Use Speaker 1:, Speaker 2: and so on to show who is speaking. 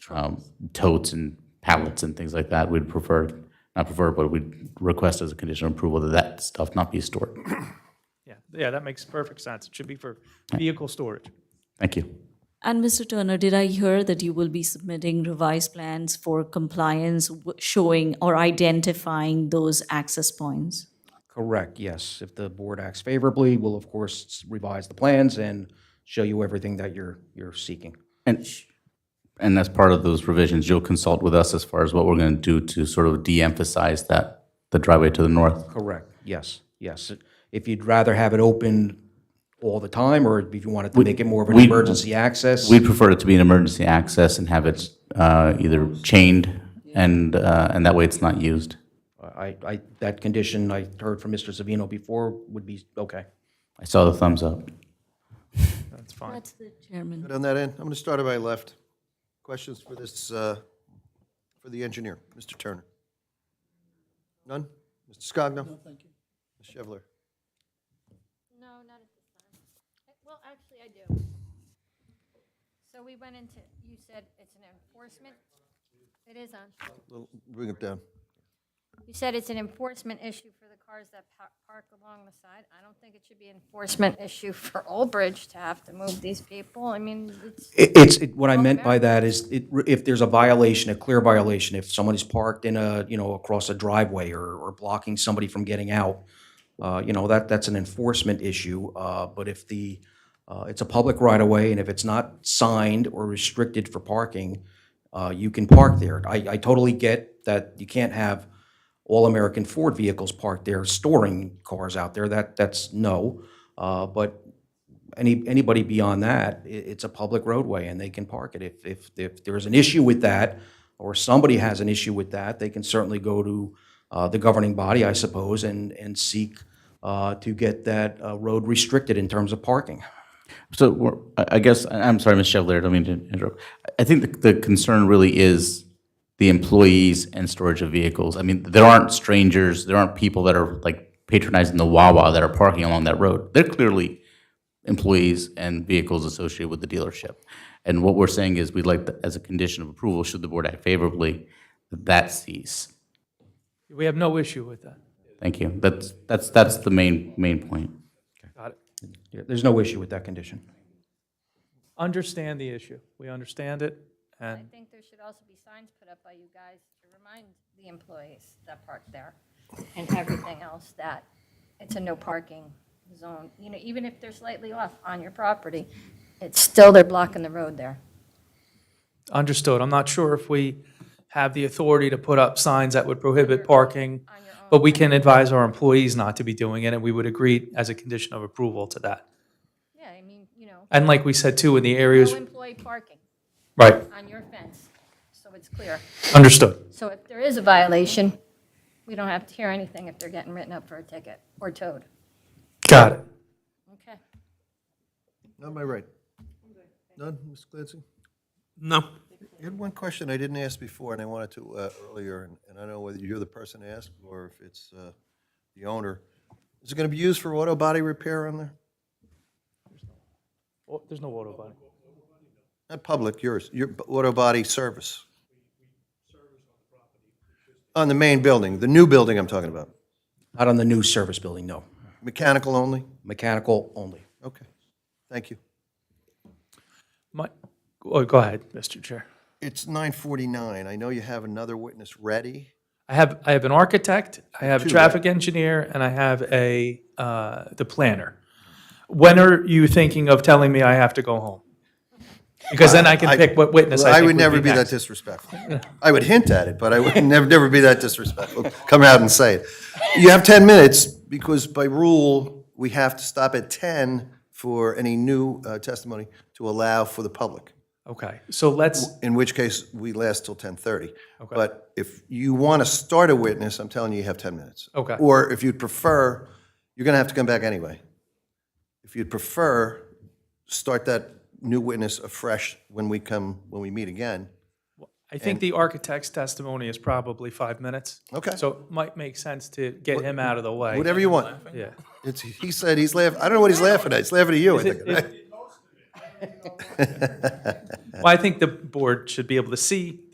Speaker 1: um, totes and pallets and things like that. We'd prefer, not prefer, but we'd request as a condition of approval that that stuff not be stored.
Speaker 2: Yeah, yeah, that makes perfect sense. It should be for vehicle storage.
Speaker 1: Thank you.
Speaker 3: And Mr. Turner, did I hear that you will be submitting revised plans for compliance w- showing or identifying those access points?
Speaker 4: Correct, yes. If the board acts favorably, we'll of course revise the plans and show you everything that you're, you're seeking.
Speaker 1: And, and as part of those revisions, you'll consult with us as far as what we're going to do to sort of de-emphasize that, the driveway to the north.
Speaker 4: Correct, yes, yes. If you'd rather have it open all the time, or if you wanted to make it more of an
Speaker 1: we-
Speaker 4: emergency access,
Speaker 1: We'd prefer it to be an emergency access and have it uh, either chained and, uh, and that way it's not used.
Speaker 4: I, I, that condition I heard from Mr. Savino before would be okay.
Speaker 1: I saw the thumbs up.
Speaker 2: That's fine.
Speaker 3: That's the chairman.
Speaker 5: Good on that end. I'm going to start on my left. Questions for this, uh, for the engineer, Mr. Turner? None? Mr. Scogno? No, thank you. Ms. Chevalier?
Speaker 6: No, not at this time. Uh, Well, actually, I do. So we went into, you said it's an enforcement, it is on.
Speaker 5: Little- Bring it down.
Speaker 6: You said it's an enforcement issue for the cars that pa- park along the side. I don't think it should be an enforcement issue for Old Bridge to have to move these people. I mean, it's,
Speaker 4: It- It's, it- what I meant by that is, it- if there's a violation, a clear violation, if someone is parked in a, you know, across a driveway or, or blocking somebody from getting out, uh, you know, that, that's an enforcement issue. Uh, But if the, uh, it's a public right-of-way, and if it's not signed or restricted for parking, uh, you can park there. I, I totally get that you can't have all-American Ford vehicles parked there, storing cars out there. That, that's no. Uh, But any, anybody beyond that, i it's a public roadway and they can park it. If, if, if there's an issue with that, or somebody has an issue with that, they can certainly go to, uh, the governing body, I suppose, and, and seek, uh, to get that, uh, road restricted in terms of parking.
Speaker 1: So we're, I I guess, I- I'm sorry, Ms. Chevalier, I don't mean to interrupt. I- I think the, the concern really is the employees and storage of vehicles. I mean, there aren't strangers, there aren't people that are like patronizing the Wawa that are parking along that road. They're clearly employees and vehicles associated with the dealership. And what we're saying is we'd like, to- as a condition of approval, should the board act favorably, that that cease.
Speaker 2: We have no issue with that.
Speaker 1: Thank you. That's, that's, that's the main, main point.
Speaker 2: Got it.
Speaker 4: Yeah, There's no issue with that condition.
Speaker 2: Understand the issue. We understand it,
Speaker 6: I
Speaker 2: and
Speaker 6: think there should also be signs put up by you guys to remind the employees that park there and everything else that it's a no parking zone. You know, even if they're slightly off on your property, it's still, they're blocking the road there.
Speaker 2: understood. I'm not sure if we have the authority to put up signs that would prohibit parking, but we can advise our employees not to be doing it, and we would agree as a condition of approval to that.
Speaker 6: Yeah, I mean, you know,
Speaker 2: And like we said too, in the
Speaker 6: no
Speaker 2: areas,
Speaker 6: employee parking
Speaker 2: right,
Speaker 6: on your fence, so it's clear.
Speaker 2: understood.
Speaker 6: So if there is a violation, we don't have to hear anything if they're getting written up for a ticket or towed.
Speaker 2: Got it.
Speaker 6: Okay.
Speaker 5: None on my right. None, Ms. Clancy?
Speaker 7: No.
Speaker 5: You had one question I didn't ask before, and I wanted to uh, earlier, and- and I don't know whether you're the person to ask or if it's uh, the owner. Is it going to be used for auto body repair on there?
Speaker 2: Oh, There's no auto body.
Speaker 5: Not public, yours, your b- auto body service. On the main building, the new building I'm talking about,
Speaker 4: Not on the new service building, no.
Speaker 5: mechanical only?
Speaker 4: Mechanical only.
Speaker 5: Okay, thank you.
Speaker 2: My, oh, go ahead, Mr. Chair.
Speaker 5: It's 9:49, I know you have another witness ready.
Speaker 2: I have, I have an architect, I have a traffic engineer, and I have a, uh, the planner. When are you thinking of telling me I have to go home? Because then I can pick what witness I
Speaker 5: I
Speaker 2: think
Speaker 5: would never be that
Speaker 2: next.
Speaker 5: disrespectful. I would hint at it, but I would never, never be that disrespectful. Come out and say it. You have 10 minutes, because by rule, we have to stop at 10 for any new uh, testimony to allow for the public.
Speaker 2: Okay, so let's,
Speaker 5: in which case we last till 10:30. But if you want to start a witness, I'm telling you, you have 10 minutes.
Speaker 2: Okay.
Speaker 5: Or if you'd prefer, you're going to have to come back anyway. If you'd prefer, start that new witness afresh when we come, when we meet again.
Speaker 2: I think the architect's testimony is probably five minutes.
Speaker 5: Okay.
Speaker 2: So it might make sense to get him out of the way.
Speaker 5: Whatever you want.
Speaker 2: Yeah.
Speaker 5: It's, he said he's laughing, I don't know what he's laughing at, he's laughing at you, I think.
Speaker 6: don't know.
Speaker 2: Well, I think the board should be able to see